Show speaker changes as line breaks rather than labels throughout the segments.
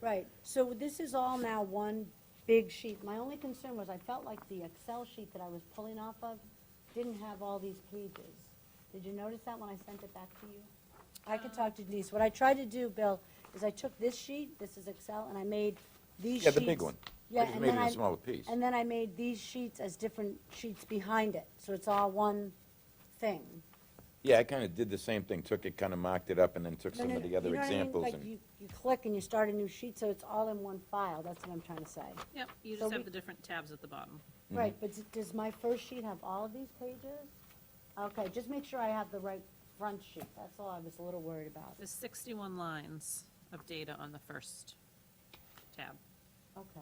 Right, so this is all now one big sheet. My only concern was I felt like the Excel sheet that I was pulling off of didn't have all these pages. Did you notice that when I sent it back to you? I could talk to Denise. What I tried to do, Bill, is I took this sheet, this is Excel, and I made these sheets.
Yeah, the big one. I
Yeah,
just
and
made
then
it a smaller piece.
And then I made these sheets as different sheets behind it, so it's all one thing.
Yeah, I kinda did the same thing, took it, kinda marked it up, and then took
No,
some
no,
of
no,
the other
you know what I mean?
examples
Like,
and,
you- You click and you start a new sheet, so it's all in one file, that's what I'm trying to say.
Yep, you
So
just
we-
have the different tabs at the bottom.
Right, but d- does my first sheet have all of these pages? Okay, just make sure I have the right front sheet, that's all I was a little worried about.
There's 61 lines of data on the first tab.
Okay.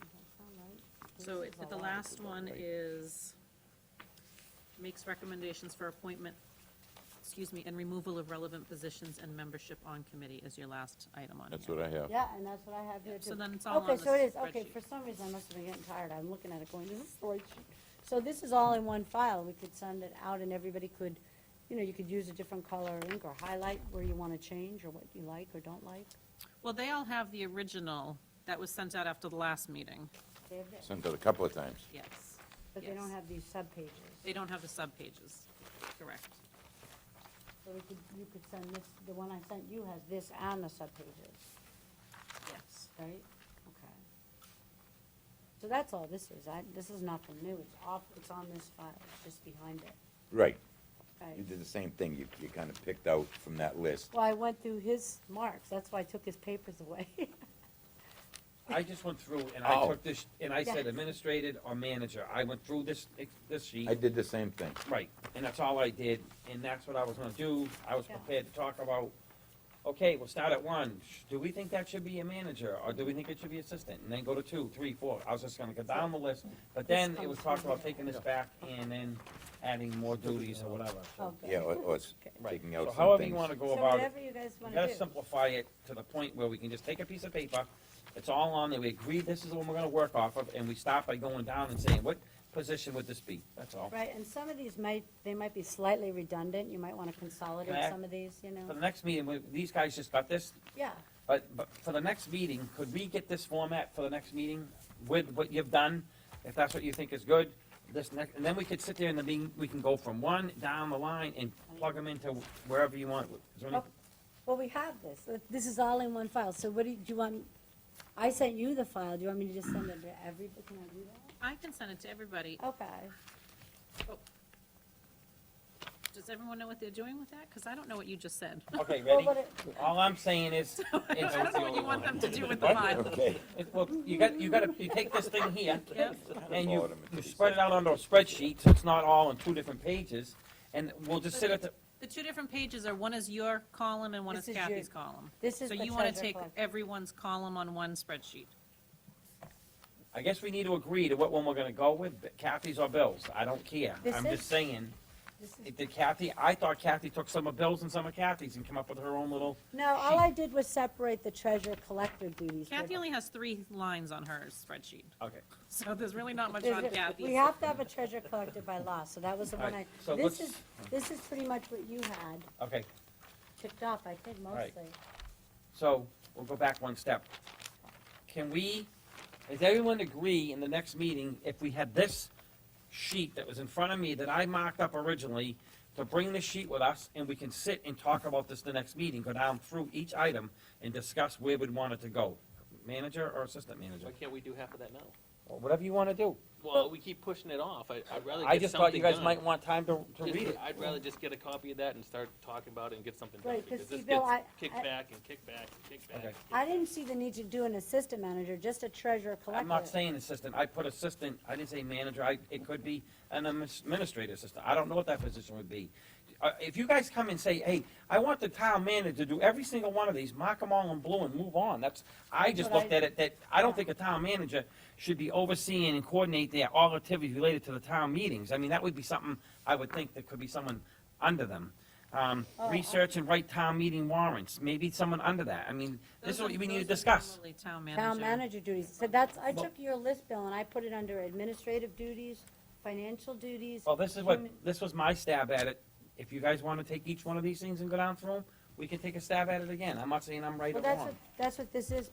Does that sound right?
So
This
it-
is a
the
lot.
last one
right?
is, makes recommendations for appointment, excuse me, and removal of relevant positions and membership on committee is your last item on here.
that's what I have.
Yeah, and that's what I have here
Yep,
too.
so then it's all on
Okay, so it
the
is, okay,
spreadsheet.
for some reason I must have been getting tired, I'm looking at it going, this is the right sheet. So this is all in one file, we could send it out and everybody could, you know, you could use a different color ink or highlight where you want to change or what you like or don't like.
Well, they all have the original that was sent out after the last meeting,
They have it,
Sent it a couple of times.
yes.
But they
yes.
don't have these subpages.
They don't have the subpages, correct.
So we could, you could send this, the one I sent you has this and the subpages,
Yes.
right? Okay. So that's all this is, I, this is nothing new, it's off, it's on this file, it's just behind it,
Right, you
right?
did the same thing, you, you kinda picked out from that list.
Well, I went through his marks, that's why I took his papers away.
I just went through and I
Oh.
took this, and I said
Yeah.
administrated or manager, I went through this, this sheet.
I did the same thing.
Right, and that's all I did, and that's what I was gonna do, I was
Yeah.
prepared to talk about, okay, we'll start at one, Sh- do we think that should be a manager, or do we think it should be assistant? And then go to two, three, four, I was just gonna go down the list, but then it was talked about taking this back and then adding more duties or whatever, so.
Okay.
Yeah, or, or it's
Right.
taking out
So
some things.
however you wanna go
Oh. So
about it,
whatever you guys
you
want to
gotta
do.
simplify it to the point where we can just take a piece of paper, it's all on there, we agree this is the one we're gonna work off of, and we start by going down and saying, what position would this be, that's all.
Right, and some of these might, they might be slightly redundant, you might want to consolidate
Can I-
some of these, you
For
know?
the next meeting, we- these guys just got this,
Yeah,
But, but for the next meeting, could we get this format for the next meeting with what you've done? If that's what you think is good, this next, and then we could sit there in the meeting, we can go from one down the line and plug them into wherever you want. Is there any-
Oh, well, we have this, Uh, this is all in one file, so what do you, do you want, I sent you the file, do you want me to just send it to everybody, can I do that?
I can send it to everybody.
Okay,
Does everyone know what they're doing with that? Because I don't know what you just said.
Okay,
Oh. well,
ready?
what, it-
All I'm saying is,
I don't know what you want them to do with the
What?
file.
Okay.
it- well, you got, you gotta, you take this thing here
Yep.
and you, you spread it out onto a spreadsheet, so it's not all on two different pages. And we'll just sit at the,
The two different pages are, one is your column and one
This
is
is your-
Kathy's column.
this is
So
the
you want to
treasure
take
collector.
everyone's column on one spreadsheet.
I guess we need to agree to what one we're gonna go with, Kathy's or Bill's, I don't care.
This
I'm
is-
just saying.
this is-
It- Did Kathy, I thought Kathy took some of Bill's and some of Kathy's and came up with her own little,
No, all I did was separate the treasure collector duties. for
Kathy
the-
only has three lines on her spreadsheet,
okay.
so there's really not much
There's
on
a- We
Kathy's.
have to have a treasure collector by law, so that was the one I,
Alright, so
this
let's-
is, this is pretty much what you had
Okay,
ticked off, I think
Right.
mostly.
so we'll go back one step. Can we, does everyone agree in the next meeting, if we had this sheet that was in front of me that I marked up originally, to bring the sheet with us and we can sit and talk about this the next meeting, go down through each item and discuss where we'd want it to go? Manager or assistant manager,
Why can't we do half of that now?
or whatever you wanna do.
Well, we keep pushing it off. I, I'd rather
I
get
just thought you
something
guys might
done.
want time to, to
Just-
read it.
I'd rather just get a copy of that and start talking about it and get something done.
Right, 'cause
Because
see,
this
Bill,
gets
I- I-
kicked back and kicked back and kicked back.
Okay.
I didn't see the need to do an assistant manager, just a treasure collector.
I'm not saying assistant, I put assistant, I didn't say manager, I, it could be an administrative assistant, I don't know what that position would be. Uh, if you guys come and say, hey, I want the town manager to do every single one of these, mark them all in blue and move on, that's, I just
But I-
looked at it, that, I don't think a town manager should be overseeing and coordinating their all activities related to the town meetings, I mean, that would be something, I would think that could be someone under them. Um,
Oh, I-
research and write town meeting warrants, maybe someone under that, I mean, this is
Those
what
are-
we need
those
to
are
discuss.
normally Town
Town
manager.
manager duties, so that's, I
Well-
took your list, Bill, and I put it under administrative duties, financial duties.
Well, this is what,
human-
this was my stab at it. If you guys wanna take each one of these things and go down through them, we can take a stab at it again. I'm not saying I'm right
Well,
or
that's what,
wrong.
that's what this is,